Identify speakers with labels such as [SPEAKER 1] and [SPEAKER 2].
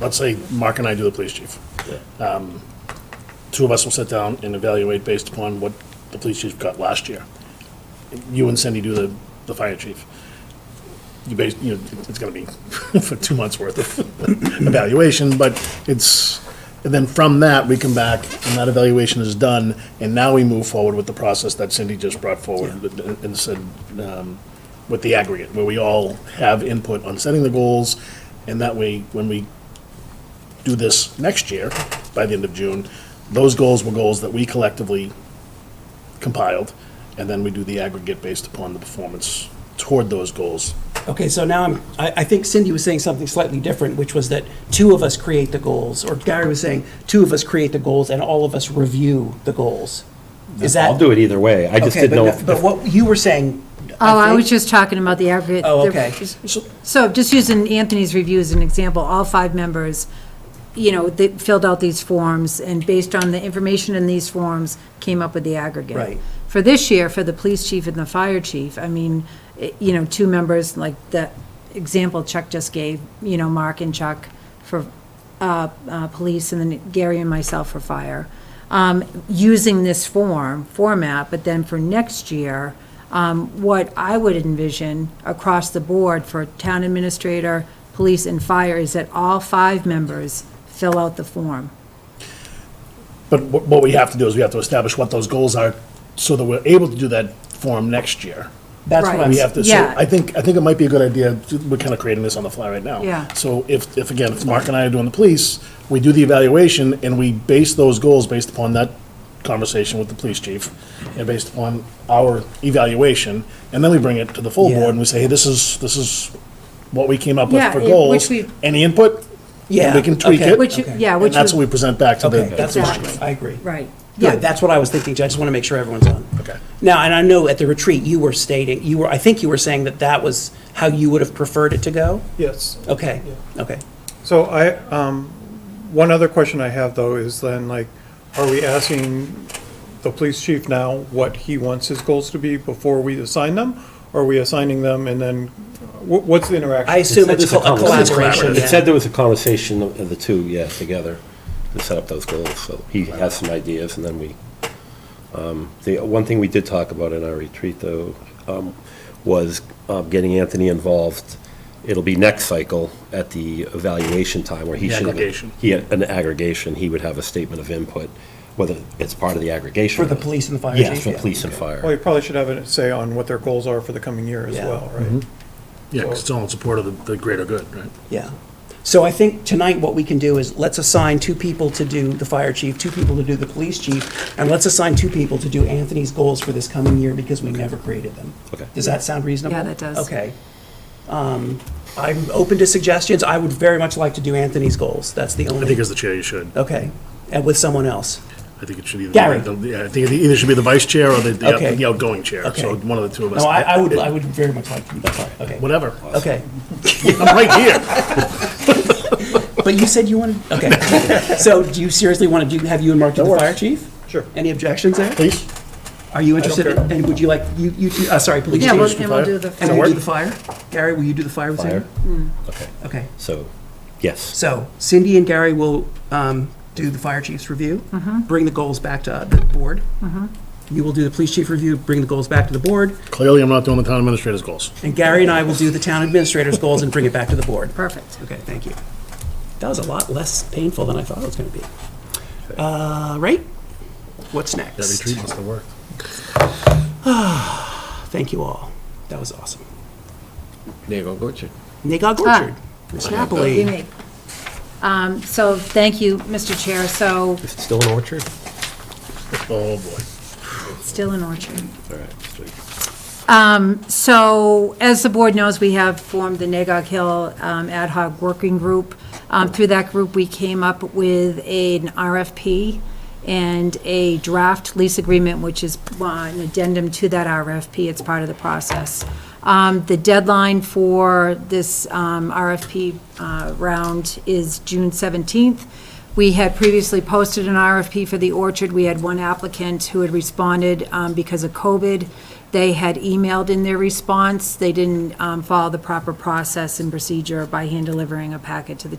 [SPEAKER 1] let's say Mark and I do the police chief. Um, Two of us will sit down and evaluate based upon what the police chief got last year. You and Cindy do the, the fire chief. You base, you know, it's gonna be for two months' worth of evaluation, but it's, and then from that, we come back, and that evaluation is done, and now we move forward with the process that Cindy just brought forward and said, um, with the aggregate, where we all have input on setting the goals, and that way, when we do this next year, by the end of June, those goals were goals that we collectively compiled, and then we do the aggregate based upon the performance toward those goals.
[SPEAKER 2] Okay, so now I'm, I, I think Cindy was saying something slightly different, which was that two of us create the goals, or Gary was saying, two of us create the goals and all of us review the goals. Is that?
[SPEAKER 3] I'll do it either way. I just
[SPEAKER 2] Okay,
[SPEAKER 3] didn't know.
[SPEAKER 2] but,
[SPEAKER 3] if-
[SPEAKER 2] but what you were saying.
[SPEAKER 4] Oh, I
[SPEAKER 2] think-
[SPEAKER 4] was just talking about the aggregate.
[SPEAKER 2] Oh, okay.
[SPEAKER 4] So just using Anthony's review as an example, all five members, you know, they filled out these forms, and based on the information in these forms, came up with the aggregate.
[SPEAKER 2] Right.
[SPEAKER 4] For this year, for the police chief and the fire chief, I mean, it- you know, two members, like that example Chuck just gave, you know, Mark and Chuck for uh, uh, police, and then Gary and myself for fire, um, using this form, format, but then for next year, um, what I would envision across the board for town administrator, police, and fire is that all five members fill out the form.
[SPEAKER 1] But what what we have to do is we have to establish what those goals are so that we're able to do that form next year.
[SPEAKER 2] That's what
[SPEAKER 4] Right.
[SPEAKER 2] I'm,
[SPEAKER 1] We have to, so
[SPEAKER 4] Yeah.
[SPEAKER 1] I think, I think it might be a good idea, we're kind of creating this on the fly right now.
[SPEAKER 4] Yeah.
[SPEAKER 1] So if, if again, if Mark and I are doing the police, we do the evaluation and we base those goals based upon that conversation with the police chief and based upon our evaluation. And then we bring it to the full
[SPEAKER 2] Yeah.
[SPEAKER 1] board and we say, hey, this is, this is what we came up with
[SPEAKER 4] Yeah,
[SPEAKER 1] for
[SPEAKER 4] it- which
[SPEAKER 1] goals.
[SPEAKER 4] we-
[SPEAKER 1] Any input?
[SPEAKER 2] Yeah,
[SPEAKER 1] We can tweak
[SPEAKER 2] okay.
[SPEAKER 1] it.
[SPEAKER 4] Which, you-
[SPEAKER 2] Okay.
[SPEAKER 4] yeah,
[SPEAKER 1] And
[SPEAKER 4] which.
[SPEAKER 1] that's
[SPEAKER 4] you-
[SPEAKER 1] what we present back to
[SPEAKER 2] okay,
[SPEAKER 1] the.
[SPEAKER 2] that's what
[SPEAKER 4] Exactly.
[SPEAKER 2] I, I agree.
[SPEAKER 4] Right, yeah.
[SPEAKER 2] Good, that's what I was thinking, Jay. I just want to make sure everyone's on.
[SPEAKER 1] Okay.
[SPEAKER 2] Now, and I know at the retreat, you were stating, you were, I think you were saying that that was how you would have preferred it to go?
[SPEAKER 5] Yes.
[SPEAKER 2] Okay, okay.
[SPEAKER 5] So I, um, one other question I have though is then like, are we asking the police chief now what he wants his goals to be before we assign them? Or Are we assigning them and then, wh- what's the interaction?
[SPEAKER 2] I assume
[SPEAKER 3] said
[SPEAKER 2] it's
[SPEAKER 3] there's a
[SPEAKER 2] co- a
[SPEAKER 3] conversation.
[SPEAKER 2] collaboration,
[SPEAKER 3] It said
[SPEAKER 2] yeah.
[SPEAKER 3] there was a conversation of of the two, yeah, together, to set up those goals, so he has some ideas, and then we, um, the, one thing we did talk about in our retreat, though, um, was um, getting Anthony involved. It'll be next cycle at the evaluation time where he
[SPEAKER 1] The
[SPEAKER 3] should. have-
[SPEAKER 1] aggregation.
[SPEAKER 3] He, had an aggregation, he would have a statement of input, whether it's part of the aggregation.
[SPEAKER 2] For the police and the fire
[SPEAKER 3] Yes,
[SPEAKER 2] chief,
[SPEAKER 3] for
[SPEAKER 2] yeah.
[SPEAKER 3] police and
[SPEAKER 5] Well,
[SPEAKER 3] fire.
[SPEAKER 5] you probably should have a say on what their goals are for the coming year as
[SPEAKER 2] Yeah.
[SPEAKER 5] well, right?
[SPEAKER 1] Yeah, 'cause it's all in support of the- the greater good, right?
[SPEAKER 2] Yeah. So I think tonight what we can do is let's assign two people to do the fire chief, two people to do the police chief, and let's assign two people to do Anthony's goals for this coming year because we never created them.
[SPEAKER 3] Okay.
[SPEAKER 2] Does that sound reasonable?
[SPEAKER 4] Yeah, that does.
[SPEAKER 2] Okay. Um, I'm open to suggestions. I would very much like to do Anthony's goals. That's the
[SPEAKER 1] I think
[SPEAKER 2] only,
[SPEAKER 1] as the chair, you should.
[SPEAKER 2] okay, and with someone else.
[SPEAKER 1] I think it should either.
[SPEAKER 2] Oh. Gary.
[SPEAKER 1] Yeah, I think it either should be the vice chair or the, the
[SPEAKER 2] Okay.
[SPEAKER 1] out- the outgoing chair,
[SPEAKER 2] Okay.
[SPEAKER 1] so one of the two of us.
[SPEAKER 2] No, I, I would, I would very much like to do that part, okay.
[SPEAKER 1] Whatever,
[SPEAKER 2] Okay.
[SPEAKER 1] I'm right here.
[SPEAKER 2] But you said you wanted, okay. So do you seriously want to do, have you and Mark do the fire chief?
[SPEAKER 5] Sure.
[SPEAKER 2] Any objections there?
[SPEAKER 1] Please,
[SPEAKER 2] Are you interested,
[SPEAKER 1] care.
[SPEAKER 2] and would you like, you, you, two- uh, sorry, police
[SPEAKER 4] Yeah,
[SPEAKER 2] chief?
[SPEAKER 4] we'll- and we'll do the.
[SPEAKER 2] And
[SPEAKER 4] form.
[SPEAKER 2] will you do the fire? Gary, will you do the fire with Cindy?
[SPEAKER 3] Fire, okay,
[SPEAKER 2] Okay,
[SPEAKER 3] so, yes.
[SPEAKER 2] so Cindy and Gary will um, do the fire chief's review, bring the goals back to the board. You will do the police chief review, bring the goals back to the board,
[SPEAKER 1] clearly I'm not doing the town administrator's goals.
[SPEAKER 2] and Gary and I will do the town administrator's goals and bring it back to the board.
[SPEAKER 4] Perfect.
[SPEAKER 2] Okay, thank you. That was a lot less painful than I thought it was going to be. Uh, Right? What's next?
[SPEAKER 1] That retreat must have worked.
[SPEAKER 2] Thank you all. That was awesome.
[SPEAKER 6] Naval Orchard.
[SPEAKER 2] Nagog Orchard, Miss Napoli.
[SPEAKER 4] You may. Um, So, thank you, Mr. Chair. So,
[SPEAKER 3] Is it still an orchard?
[SPEAKER 1] Oh, boy.
[SPEAKER 4] still in Orchard.
[SPEAKER 3] All right, sweet.
[SPEAKER 4] So, as the board knows, we have formed the Nagog Hill um, Ad hoc Working Group. Um, Through that group, we came up with an RFP and a draft lease agreement, which is uh, an addendum to that RFP. It's part of the process. Um, The deadline for this um, RFP uh, round is June 17th. We had previously posted an RFP for the orchard. We had one applicant who had responded um, because of COVID. They had emailed in their response. They didn't um, follow the proper process and procedure by hand delivering a packet to the